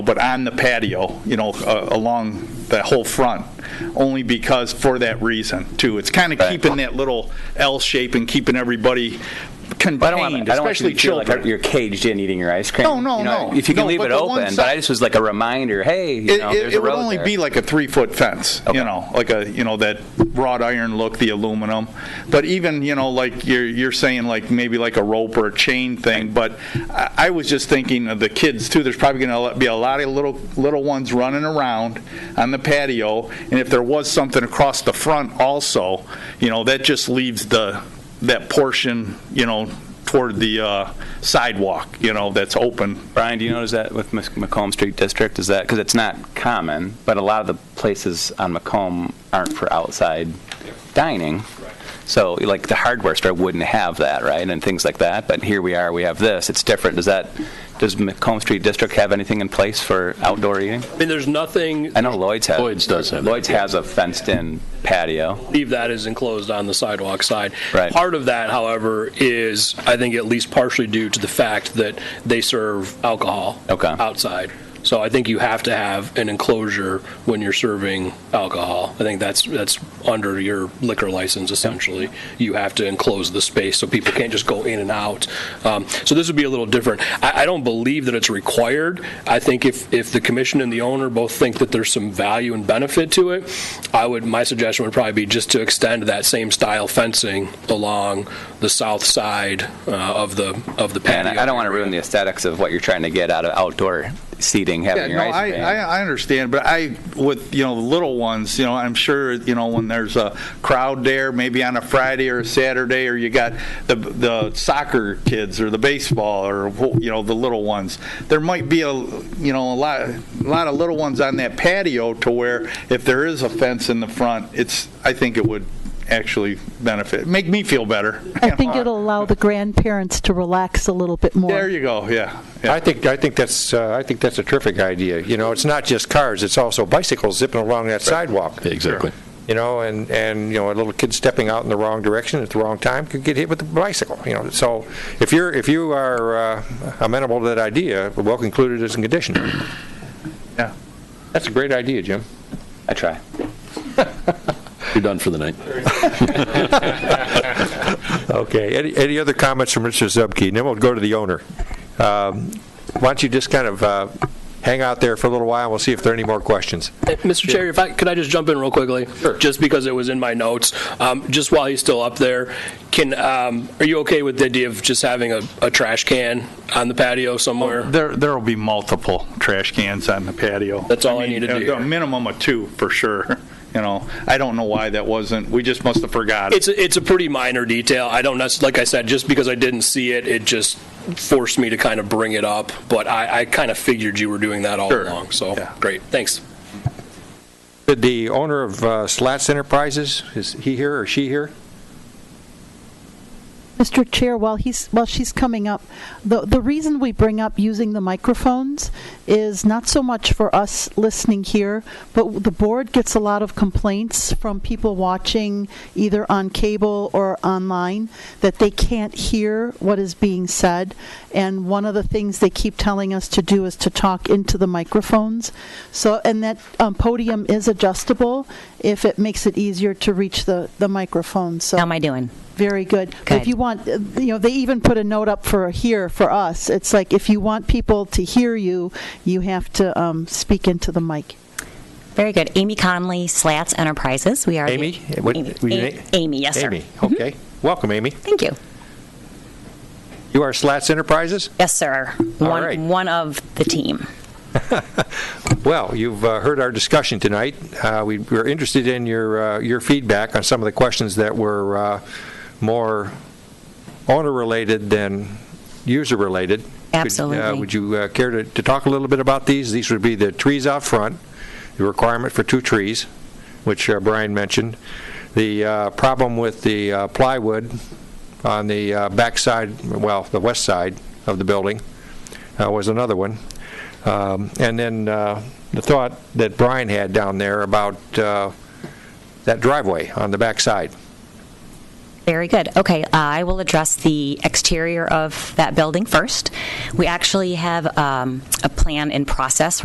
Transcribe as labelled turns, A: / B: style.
A: but on the patio, you know, uh, along the whole front, only because, for that reason, too. It's kind of
B: Right.
A: keeping that little L shape and keeping everybody
B: But I don't want,
A: contained,
B: I don't want you
A: especially
B: to feel like
A: children.
B: you're caged in eating your ice cream.
A: No, no,
B: You know,
A: no.
B: If you can
A: No,
B: leave
A: but
B: it
A: the one
B: open, but
A: side-
B: I just was like a reminder. Hey, you
A: It,
B: know,
A: it-
B: there's a
A: it would
B: road
A: only
B: there.
A: be like a three-foot fence,
B: Okay.
A: you know, like a, you know, that wrought iron look, the aluminum. But even, you know, like you're, you're saying, like, maybe like a rope or a chain thing, but I, I was just thinking of the kids, too. There's probably gonna be a lot of little, little ones running around on the patio, and if there was something across the front also, you know, that just leaves the, that portion, you know, toward the uh, sidewalk, you know, that's open,
B: Brian, do you notice that with Mc- Macomb Street District? Is that because it's not common, but a lot of the places on Macomb aren't for outside dining. So, like the hardware store wouldn't have that, right, and things like that. But here we are, we have this. It's different. Does that? Does Macomb Street District have anything in place for outdoor eating?
C: I mean, there's nothing,
B: I know Lloyd's has.
D: Lloyd's does have that,
B: Lloyd's has a fenced-in patio.
C: leave that is enclosed on the sidewalk side.
B: Right.
C: Part of that, however, is, I think, at least partially due to the fact that they serve alcohol
B: Okay.
C: outside. So I think you have to have an enclosure when you're serving alcohol. I think that's, that's under your liquor license essentially. You have to enclose the space so people can't just go in and out. Um, So this would be a little different. I, I don't believe that it's required. I think if, if the commission and the owner both think that there's some value and benefit to it, I would, my suggestion would probably be just to extend that same style fencing along the south side uh, of the, of the
B: And
C: patio.
B: I I don't want to ruin the aesthetics of what you're trying to get out of outdoor seating, having your
A: no,
B: ice cream.
A: I, I, I understand, but I, with, you know, the little ones, you know, I'm sure, you know, when there's a crowd there, maybe on a Friday or a Saturday, or you got the, the soccer kids or the baseball or, you know, the little ones, there might be a, you know, a lot, a lot of little ones on that patio to where if there is a fence in the front, it's, I think it would actually benefit, make me feel better.
E: I think it'll allow the grandparents to relax a little bit more.
A: There you go, yeah. yeah.
F: I think, I think that's, uh, I think that's a terrific idea. You know, it's not just cars, it's also bicycles zipping along that sidewalk,
D: Exactly.
F: you know, and, and, you know, a little kid stepping out in the wrong direction at the wrong time could get hit with a bicycle, you know. So if you're, if you are uh, amenable to that idea, well included as a condition.
A: Yeah.
F: That's a great idea, Jim.
B: I try.
D: You're done for the night.
F: Okay, any, any other comments from Mr. Zupke? And then we'll go to the owner. Um, Why don't you just kind of uh, hang out there for a little while, and we'll see if there are any more questions.
C: Mr. Chair, if I, could I just jump in real quickly? Sure. Just because it was in my notes, Um, just while he's still up there, can, um, are you okay with the idea of just having a, a trash can on the patio somewhere?
A: There, there'll be multiple trash cans on the patio.
C: That's all I
A: mean,
C: needed to
A: a-
C: hear.
A: A minimum of two, for sure, you know. I don't know why that wasn't, we just must have forgot.
C: It's, a- it's a pretty minor detail, I don't, necess- like I said, just because I didn't see it, it just forced me to kind of bring it up, but I, I kind of figured you were doing that all
A: Sure.
C: along, so,
A: Yeah.
C: great, thanks.
F: Did the owner of uh, Slats Enterprises, is he here or she here?
E: Mr. Chair, while he's while she's coming up, the the reason we bring up using the microphones is not so much for us listening here, but the board gets a lot of complaints from people watching either on cable or online that they can't hear what is being said, and one of the things they keep telling us to do is to talk into the microphones. So, and that um, podium is adjustable if it makes it easier to reach the the microphone. So.
G: How am I doing?
E: Very good.
G: Good.
E: If you want, uh, you know, they even put a note up for here for us. It's like if you want people to hear you, you have to um, speak into the mic.
G: Very good. Amy Conley, Slats Enterprises. We are. the-
F: Amy? What-
G: Amy,
F: were you
G: A-
F: na-
G: Amy, yes, sir.
F: Amy, okay. Welcome, Amy.
G: Thank you.
F: You are Slats Enterprises?
G: Yes, sir.
F: All
G: one,
F: right.
G: one of the team.
F: Well, you've uh, heard our discussion tonight. Uh, We were interested in your, uh, your feedback on some of the questions that were uh, more owner-related than user-related. Could, uh,
G: Absolutely.
F: Would you uh, care to to talk a little bit about these? These would be the trees out front, the requirement for two trees, which uh, Brian mentioned, the uh, problem with the uh, plywood on the uh, backside, well, the west side of the building uh, was another one. Um, And then uh, the thought that Brian had down there about uh, that driveway on the backside.
G: Very good. Okay, uh, I will address the exterior of that building first. We actually have um, a plan in process